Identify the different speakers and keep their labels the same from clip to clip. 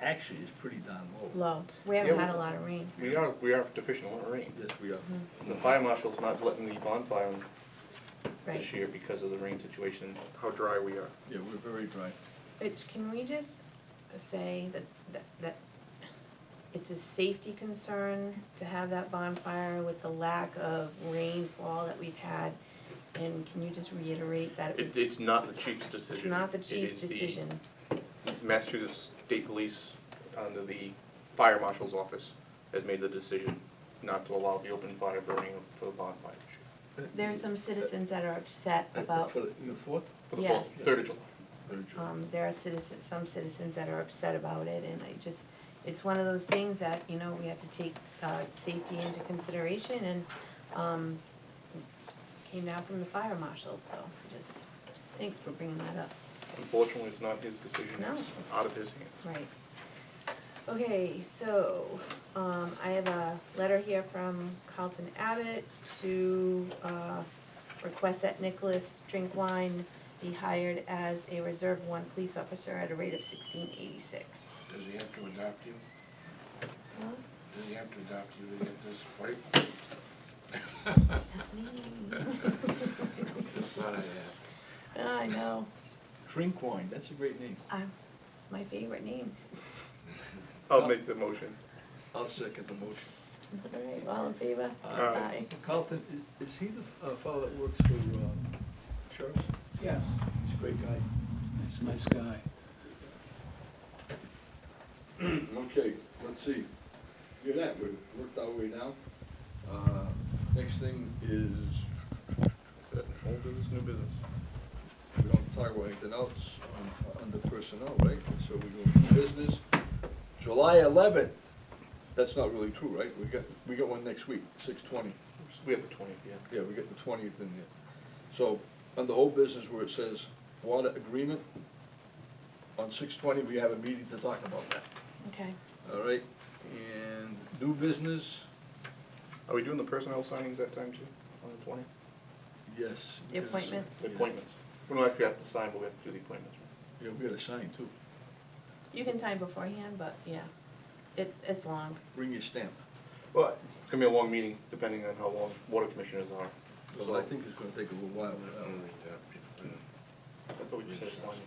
Speaker 1: actually is pretty darn low.
Speaker 2: low. We haven't had a lot of rain.
Speaker 3: We are, we are deficient in rain.
Speaker 1: Yes, we are.
Speaker 2: Mm-hmm.
Speaker 3: The fire marshal's not letting the bonfire on
Speaker 2: Right.
Speaker 3: this year because of the rain situation. How dry we are.
Speaker 1: Yeah, we're very dry.
Speaker 2: It's, can we just say that, that, that it's a safety concern to have that bonfire with the lack of rainfall that we've had? And can you just reiterate that it
Speaker 3: It's,
Speaker 2: was
Speaker 3: it's not the chief's decision.
Speaker 2: not the
Speaker 3: It
Speaker 2: chief's
Speaker 3: is the
Speaker 2: decision?
Speaker 3: Massachusetts State Police, under the fire marshal's office, has made the decision not to allow the open fire burning for the bonfire this year.
Speaker 2: There's some citizens that are upset about,
Speaker 1: Uh, For the, the fourth,
Speaker 3: For the fourth,
Speaker 2: Yes.
Speaker 3: third of July.
Speaker 1: very dry.
Speaker 2: um, there are citizens, some citizens that are upset about it, and I just, it's one of those things that, you know, we have to take, uh, safety into consideration, and, um, it's- came down from the fire marshal, so just, thanks for bringing that up.
Speaker 3: Unfortunately, it's not his decision,
Speaker 2: No.
Speaker 3: it's out of his hands.
Speaker 2: Right. Okay, so, um, I have a letter here from Carlton Abbott to, uh, request that Nicholas Drinkwine be hired as a Reserve One police officer at a rate of sixteen eighty-six.
Speaker 4: Does he have to adopt you? Does he have to adopt you to get this fight?
Speaker 5: Just thought I'd ask.
Speaker 2: I know,
Speaker 1: Drink wine, that's a great name.
Speaker 2: I'm, my favorite name.
Speaker 3: I'll make the motion.
Speaker 1: I'll second the motion.
Speaker 2: All right, all in favor?
Speaker 3: Aye.
Speaker 1: Carlton, i- is he the uh, fellow that works for, um, sheriff's?
Speaker 6: Yes,
Speaker 1: He's a great guy.
Speaker 6: he's a nice guy.
Speaker 4: Okay, let's see. Hear that, we've worked our way down. Uh, Next thing is, uh,
Speaker 3: Is that Old business, new business?
Speaker 4: we don't talk about anything else on, under personnel, right? So we go to business. July eleventh, that's not really true, right? We got, we got one next week, six twenty.
Speaker 3: We have the twentieth, yeah.
Speaker 4: Yeah, we get the twentieth in there. So, on the whole business where it says water agreement, on six twenty, we have a meeting to talk about that,
Speaker 2: Okay,
Speaker 4: all right? And new business,
Speaker 3: Are we doing the personnel signings that time too, on the twentieth?
Speaker 4: yes.
Speaker 2: the
Speaker 4: we gotta sign.
Speaker 2: appointments,
Speaker 3: The appointments. We don't actually have to sign, but we have to do the appointments.
Speaker 4: Yeah, we gotta sign too.
Speaker 2: you can sign beforehand, but, yeah, it, it's long.
Speaker 4: Bring your stamp.
Speaker 3: Well, it's gonna be a long meeting, depending on how long water commissioners are.
Speaker 4: So I think it's gonna take a little while.
Speaker 3: That's what we just had to sign.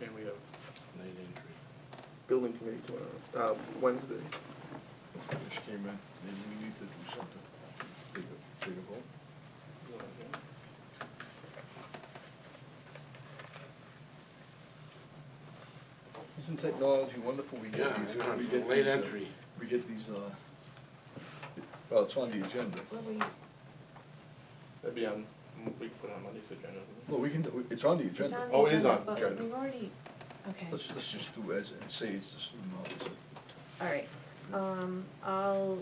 Speaker 3: And we have
Speaker 5: Night entry.
Speaker 3: building committee tomorrow, uh, Wednesday.
Speaker 4: Just came in, maybe we need to do something. Take a, take a vote. Isn't technology wonderful? We
Speaker 5: Yeah,
Speaker 4: get these,
Speaker 5: yeah,
Speaker 4: we get
Speaker 5: late
Speaker 4: these, uh,
Speaker 5: entry.
Speaker 4: We get these, uh, well, it's on the agenda.
Speaker 2: What were you,
Speaker 3: That'd be on, we could put it on Monday's agenda. wouldn't
Speaker 4: Well, we can, do- it's on the
Speaker 2: It's
Speaker 4: agenda.
Speaker 2: on
Speaker 3: Oh,
Speaker 2: the
Speaker 3: it is
Speaker 2: agenda,
Speaker 3: on
Speaker 2: but
Speaker 3: agenda.
Speaker 2: we've already, okay,
Speaker 4: Let's, let's just do as, and say it's the student officer.
Speaker 2: all right. Um, I'll,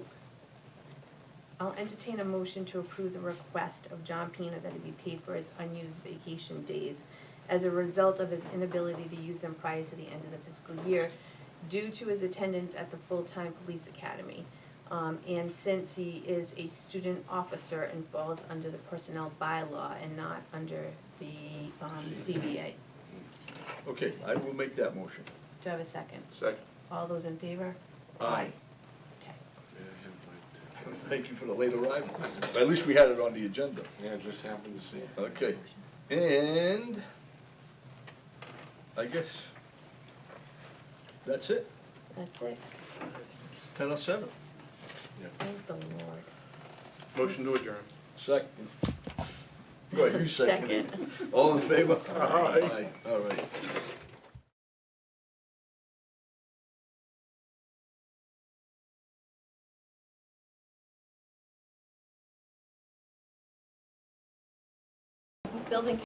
Speaker 2: I'll entertain a motion to approve the request of John Pena that he be paid for his unused vacation days as a result of his inability to use them prior to the end of the fiscal year due to his attendance at the full-time police academy. Um, and since he is a student officer and falls under the personnel bylaw and not under the, um, CBA.
Speaker 4: Okay, I will make that motion.
Speaker 2: Do I have a second?
Speaker 3: we? Second.
Speaker 2: All those in favor?
Speaker 4: Aye.
Speaker 2: Okay.
Speaker 4: Thank you for the late arrival. But At least we had it on the agenda.
Speaker 5: Yeah, just happened to see it.
Speaker 4: Okay, and I guess that's it,
Speaker 2: That's it.
Speaker 4: ten oh seven.
Speaker 2: Thank the Lord.
Speaker 3: Motion to adjourn.
Speaker 4: Second. Go ahead, you second. it.
Speaker 2: Second.
Speaker 4: All in favor?
Speaker 3: Aye.
Speaker 4: Aye, all right.
Speaker 2: Building